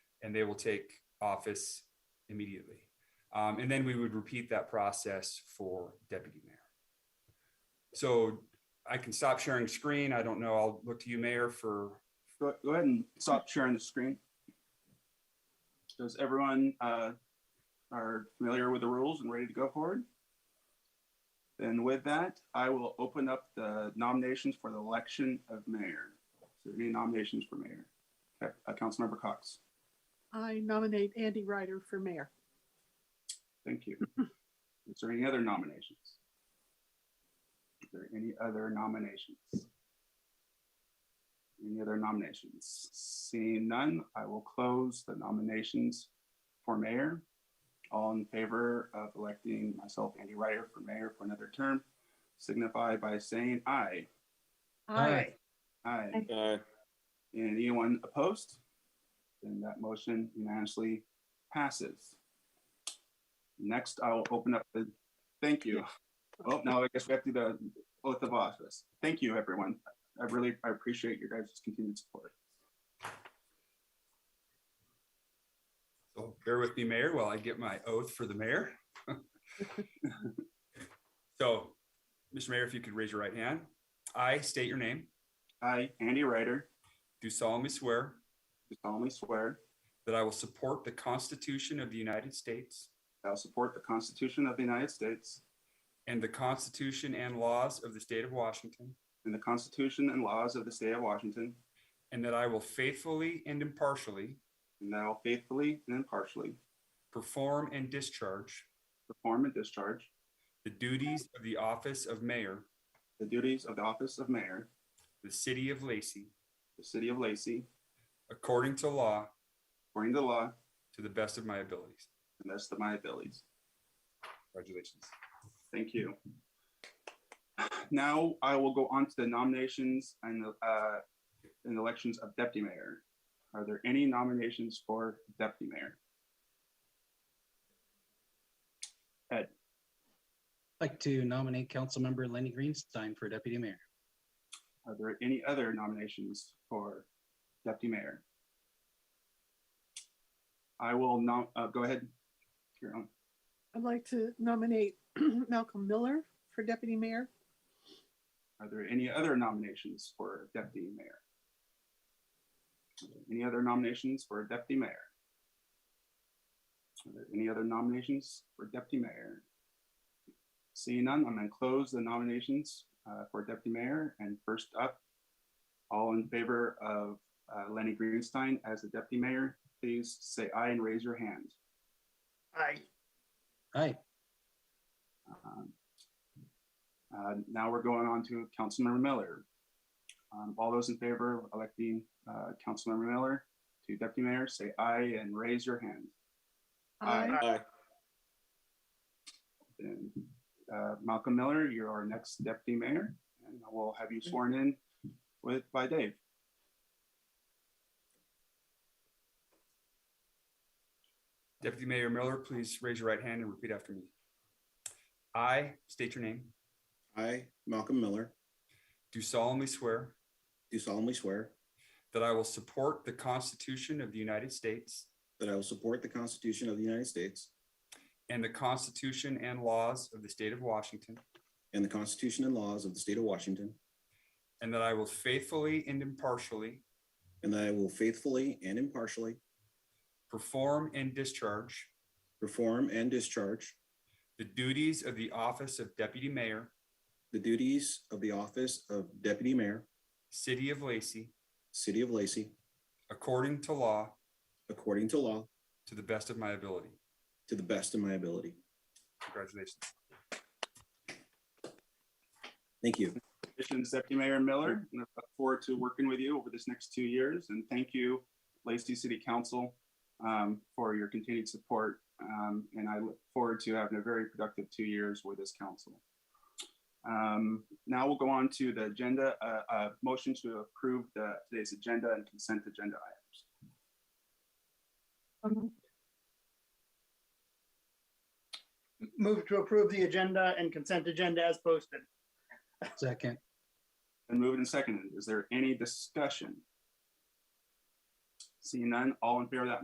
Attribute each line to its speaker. Speaker 1: and they will take office immediately. Um, and then we would repeat that process for deputy mayor. So I can stop sharing screen. I don't know. I'll look to you, Mayor, for,
Speaker 2: Go, go ahead and stop sharing the screen. Does everyone, uh, are familiar with the rules and ready to go forward? Then with that, I will open up the nominations for the election of mayor. So any nominations for mayor? Okay, uh, Councilmember Cox,
Speaker 3: I nominate Andy Ryder for mayor.
Speaker 2: thank you. Is there any other nominations? Is there any other nominations? Any other nominations? Seeing none, I will close the nominations for mayor. All in favor of electing myself, Andy Ryder, for mayor for another term, signify by saying aye.
Speaker 4: Aye.
Speaker 2: Aye.
Speaker 5: Aye.
Speaker 2: And anyone opposed? Then that motion unanimously passes. Next, I will open up the, thank you. Oh, now I guess we have to do the oath of office. Thank you, everyone. I really, I appreciate your guys' continued support.
Speaker 1: so bear with me, Mayor, while I get my oath for the mayor. So, Mr. Mayor, if you could raise your right hand. I state your name,
Speaker 2: I, Andy Ryder,
Speaker 1: do solemnly swear
Speaker 2: do solemnly swear
Speaker 1: that I will support the Constitution of the United States
Speaker 2: that I will support the Constitution of the United States
Speaker 1: and the Constitution and laws of the state of Washington,
Speaker 2: and the Constitution and laws of the state of Washington,
Speaker 1: and that I will faithfully and impartially
Speaker 2: and that I will faithfully and impartially
Speaker 1: perform and discharge
Speaker 2: perform and discharge
Speaker 1: the duties of the office of mayor,
Speaker 2: the duties of the office of mayor,
Speaker 1: of the city of Lacey,
Speaker 2: the city of Lacey,
Speaker 1: according to law,
Speaker 2: according to the law,
Speaker 1: to the best of my abilities.
Speaker 2: and that's to my abilities.
Speaker 1: Congratulations.
Speaker 2: Thank you. Now I will go on to the nominations and, uh, and elections of deputy mayor. Are there any nominations for deputy mayor?
Speaker 4: I'd like to nominate Councilmember Lenny Greenstein for deputy mayor.
Speaker 2: Are there any other nominations for deputy mayor? I will nom, uh, go ahead. Your own.
Speaker 3: I'd like to nominate Malcolm Miller for deputy mayor.
Speaker 2: Are there any other nominations for deputy mayor? Are there Any other nominations for deputy mayor? Are there any other nominations for deputy mayor? Seeing none, I'm going to close the nominations uh, for deputy mayor. And first up, all in favor of uh, Lenny Greenstein as the deputy mayor, please say aye and raise your hand.
Speaker 3: Aye.
Speaker 4: Aye.
Speaker 2: Um, uh, Now we're going on to Councilmember Miller. Um, All those in favor of electing uh, Councilmember Miller to deputy mayor, say aye and raise your hand. Aye.
Speaker 3: Aye.
Speaker 5: Aye.
Speaker 2: And uh, Malcolm Miller, you're our next deputy mayor, and we'll have you sworn in with, by Dave.
Speaker 1: Deputy Mayor Miller, please raise your right hand and repeat after me. I state your name,
Speaker 5: I, Malcolm Miller,
Speaker 1: do solemnly swear
Speaker 5: do solemnly swear
Speaker 1: that I will support the Constitution of the United States
Speaker 5: that I will support the Constitution of the United States
Speaker 1: and the Constitution and laws of the state of Washington,
Speaker 5: and the Constitution and laws of the state of Washington,
Speaker 1: and that I will faithfully and impartially
Speaker 5: and that I will faithfully and impartially
Speaker 1: perform and discharge
Speaker 5: perform and discharge
Speaker 1: the duties of the office of deputy mayor,
Speaker 5: the duties of the office of Deputy Mayor,
Speaker 1: city of Lacey,
Speaker 5: City of Lacey,
Speaker 1: according to law,
Speaker 5: according to law,
Speaker 1: to the best of my ability.
Speaker 5: to the best of my ability.
Speaker 1: Congratulations.
Speaker 5: Thank you.
Speaker 2: Congratulations, Deputy Mayor Miller, and I look forward to working with you over this next two years. And thank you, Lacey City Council, um, for your continued support. Um, and I look forward to having a very productive two years with this council. Um, now we'll go on to the agenda, uh, uh, motion to approve the, today's agenda and consent agenda items.
Speaker 6: Move to approve the agenda and consent agenda as posted.
Speaker 4: Second.
Speaker 2: And moved and seconded. Is there any discussion? Seeing none, all in favor of that